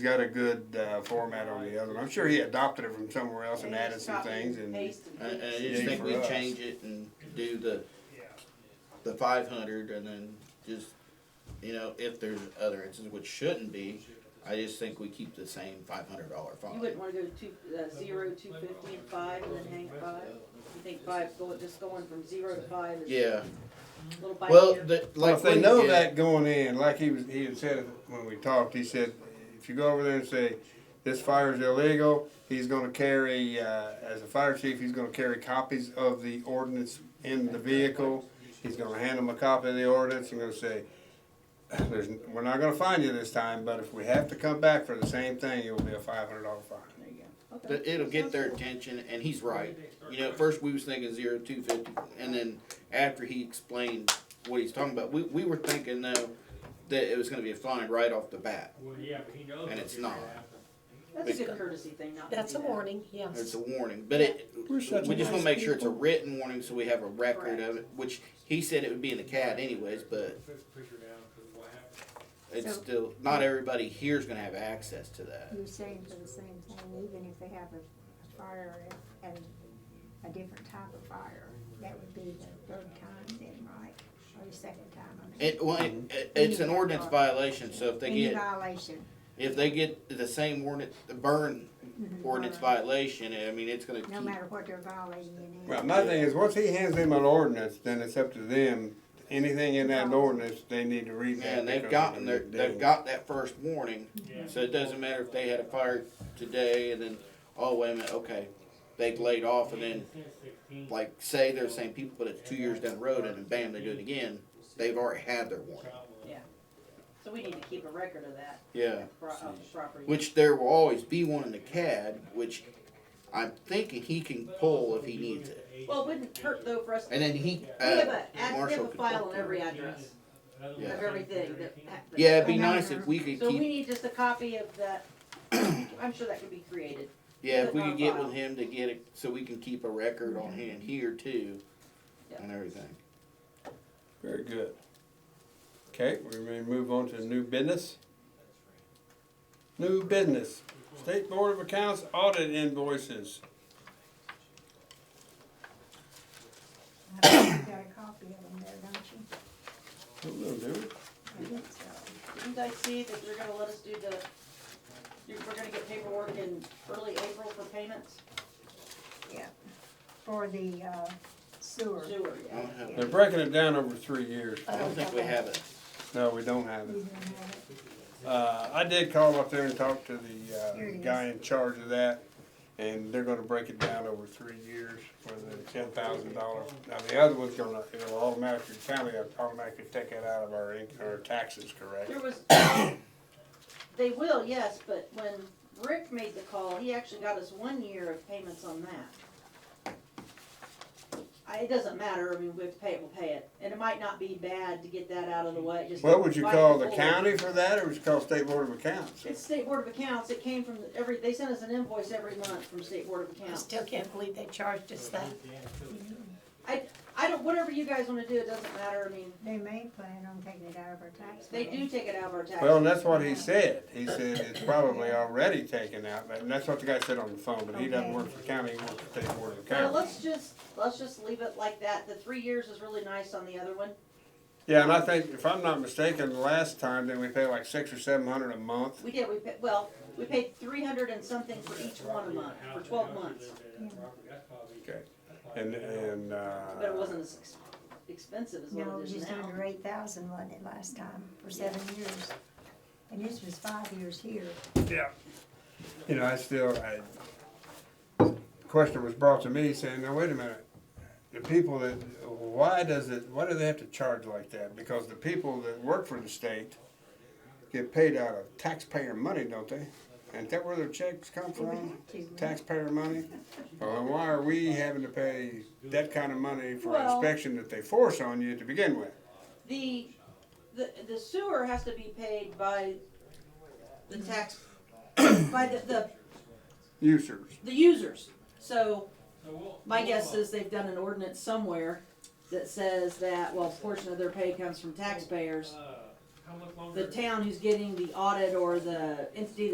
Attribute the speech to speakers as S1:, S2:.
S1: got a good uh, format on the other one. I'm sure he adopted it from somewhere else and
S2: Yeah,
S1: added
S2: it's
S1: some
S2: copy
S1: things
S2: and
S1: and.
S2: paste
S3: I,
S2: and
S3: I
S2: fix.
S3: just
S1: Yay
S3: uh, think
S1: for
S3: we
S1: us.
S3: change it and do the, the five hundred and then just, you know, if there's other instances which shouldn't be, I just think we keep the same five hundred dollar fine.
S2: You wouldn't wanna go to two, uh, zero, two fifty and five and then hang five? You think five, go, just going from zero to five is a
S3: Yeah,
S2: little bite
S3: well,
S2: here?
S3: the,
S1: Well,
S3: like.
S1: if they
S3: we-
S1: know
S3: yeah.
S1: that going in, like he was, he had said when we talked, he said, if you go over there and say, this fire is illegal, he's gonna carry, uh, as a fire chief, he's gonna carry copies of the ordinance in the vehicle. He's gonna hand them a copy of the ordinance and gonna say, there's, we're not gonna find you this time, but if we have to come back for the same thing, it'll be a five hundred dollar fine.
S2: There you go. Okay.
S3: But it'll get their
S2: Sounds good.
S3: attention, and he's right. You know, at first we was thinking zero two fifty, and then after he explained what he's talking about, we, we were thinking though that it was gonna be a fine right off the bat.
S4: Well, yeah, but he knows.
S3: And
S4: what
S3: it's
S4: you're gonna
S3: not.
S4: have to-
S2: That's a good courtesy thing, not to
S5: That's
S2: do
S5: a
S2: that.
S5: warning,
S3: It's
S5: yes.
S3: a warning, but it,
S1: We're
S3: we
S1: such
S3: just wanna
S1: nice
S3: make sure it's a
S1: people.
S3: written warning so we have a record
S2: Correct.
S3: of it, which he said it would be in the CAD anyways, but
S4: Push, push her down, 'cause what happened?
S3: it's
S6: So-
S3: still, not everybody here's gonna have access to that.
S6: You're saying for the same thing, even if they have a a fire and a different type of fire, that would be the third time then, right? Or the second time, I mean.
S3: It, well, it-
S1: Mm-hmm.
S3: it, it's an ordinance violation, so if they
S6: Any
S3: get,
S6: violation.
S3: if they get the same ordinance, the burn
S6: Mhm.
S3: ordinance violation, I mean, it's gonna
S6: No
S3: keep
S6: matter what they're violating in.
S1: Well, my thing is, once he hands them an ordinance, then it's up to them, anything in that ordinance, they need to read that.
S3: Yeah, and they've
S1: because they're
S3: gotten
S1: gonna
S3: their,
S1: be
S3: they've
S1: dead.
S3: got that first warning,
S4: Yeah.
S6: Mm-hmm.
S3: so it doesn't matter if they had a fire today and then, oh, wait a minute, okay. They've laid off and then,
S4: Since 16.
S3: like, say they're the same people, but it's two years down the road and then bam, they do it again. They've already had their warning.
S2: So we need to keep a record of that,
S3: Yeah.
S2: pro- of the property.
S3: Which there will always be one in the CAD, which I'm thinking he can pull if he needs it.
S2: Well, it wouldn't hurt though for us,
S3: And
S2: we
S3: then he,
S2: have
S3: uh,
S2: a, ask
S3: Marshall
S2: them a
S3: could
S2: file
S3: pull.
S2: on every address
S4: Another
S2: of
S3: Yeah.
S4: one.
S2: everything that happened.
S3: Yeah, it'd be nice if we could
S2: So we
S3: keep,
S2: need just a copy of that, I'm sure that could be created.
S3: yeah, if we could get with him to get it, so we can keep a record on hand here too and everything.
S1: Very good. Okay, we're gonna move on to new business. New business, State Board of Accounts audit invoices.
S6: I think You got a copy of them there, don't
S1: Who will do it?
S6: you? I think so.
S2: Didn't I see that you're gonna let us do the, you're, we're gonna get paperwork in early April for payments?
S6: For the uh, sewer.
S2: Sewer,
S3: I
S2: yeah.
S5: Mm-hmm.
S3: don't have
S1: They're breaking it down over three years.
S3: I don't think we have it.
S1: No, we don't have
S6: You
S1: it.
S6: didn't have it.
S1: Uh, I did call up there and talk to
S6: Here
S1: the,
S6: it
S1: uh,
S6: is.
S1: guy in charge of that, and they're gonna break it down over three years for the ten thousand dollars. Now, the other one's gonna, it'll automatically, county will automatically take it out of our, in- our taxes, correct?
S2: There was, they will, yes, but when Rick made the call, he actually got us one year of payments on that. I, it doesn't matter, I mean, we have to pay it, we'll pay it, and it might not be bad to get that out of the way, just.
S1: Well, would you
S2: right
S1: call the
S2: before-
S1: county for that, or would you call State Board of Accounts?
S2: It's State Board of Accounts, it came from the- every, they sent us an invoice every month from State Board of
S5: I
S2: Accounts.
S5: still can't believe they charged us that.
S2: I don't, whatever you guys wanna do, it doesn't matter, I mean,
S6: They may plan on taking it out of our tax.
S2: they do
S6: bill.
S2: take it out of our taxes.
S1: Well, and that's what he said. He said it's probably already taken out, but- and that's what the guy said on the phone, but he doesn't work for county, he works for State Board of
S2: Now,
S1: Accounts.
S2: let's just, let's just leave it like that, the three years is really nice on the other one,
S1: Yeah, and I think, if I'm not mistaken, the last time, then we paid like six or seven hundred a month.
S2: we did, we paid, well, we paid three hundred and something for each one a month, for twelve months,
S1: Okay. And, and,
S2: but it
S1: uh,
S2: wasn't as ex- expensive as
S6: No, it
S2: what
S6: was
S2: it is
S6: just
S2: now.
S6: under eight thousand, wasn't it, last time, for seven years? And this was five years here.
S1: you know, I still, I, question was brought to me saying, now wait a minute. The people that, why does it, why do they have to charge like that? Because the people that work for the state get paid out of taxpayer money, don't they? Ain't that where their checks come
S6: They would
S1: from?
S6: have to, wouldn't they?
S1: taxpayer money? Well, then why are we having to pay that kind of money for
S2: Well-
S1: inspection that they force on you to begin with?
S2: The, the, the sewer has to be paid by the tax, by the, the,
S1: Users.
S2: the users, so. My guess is they've done an ordinance somewhere that says that, well, a portion of their pay comes from taxpayers. The town who's getting the audit or the entity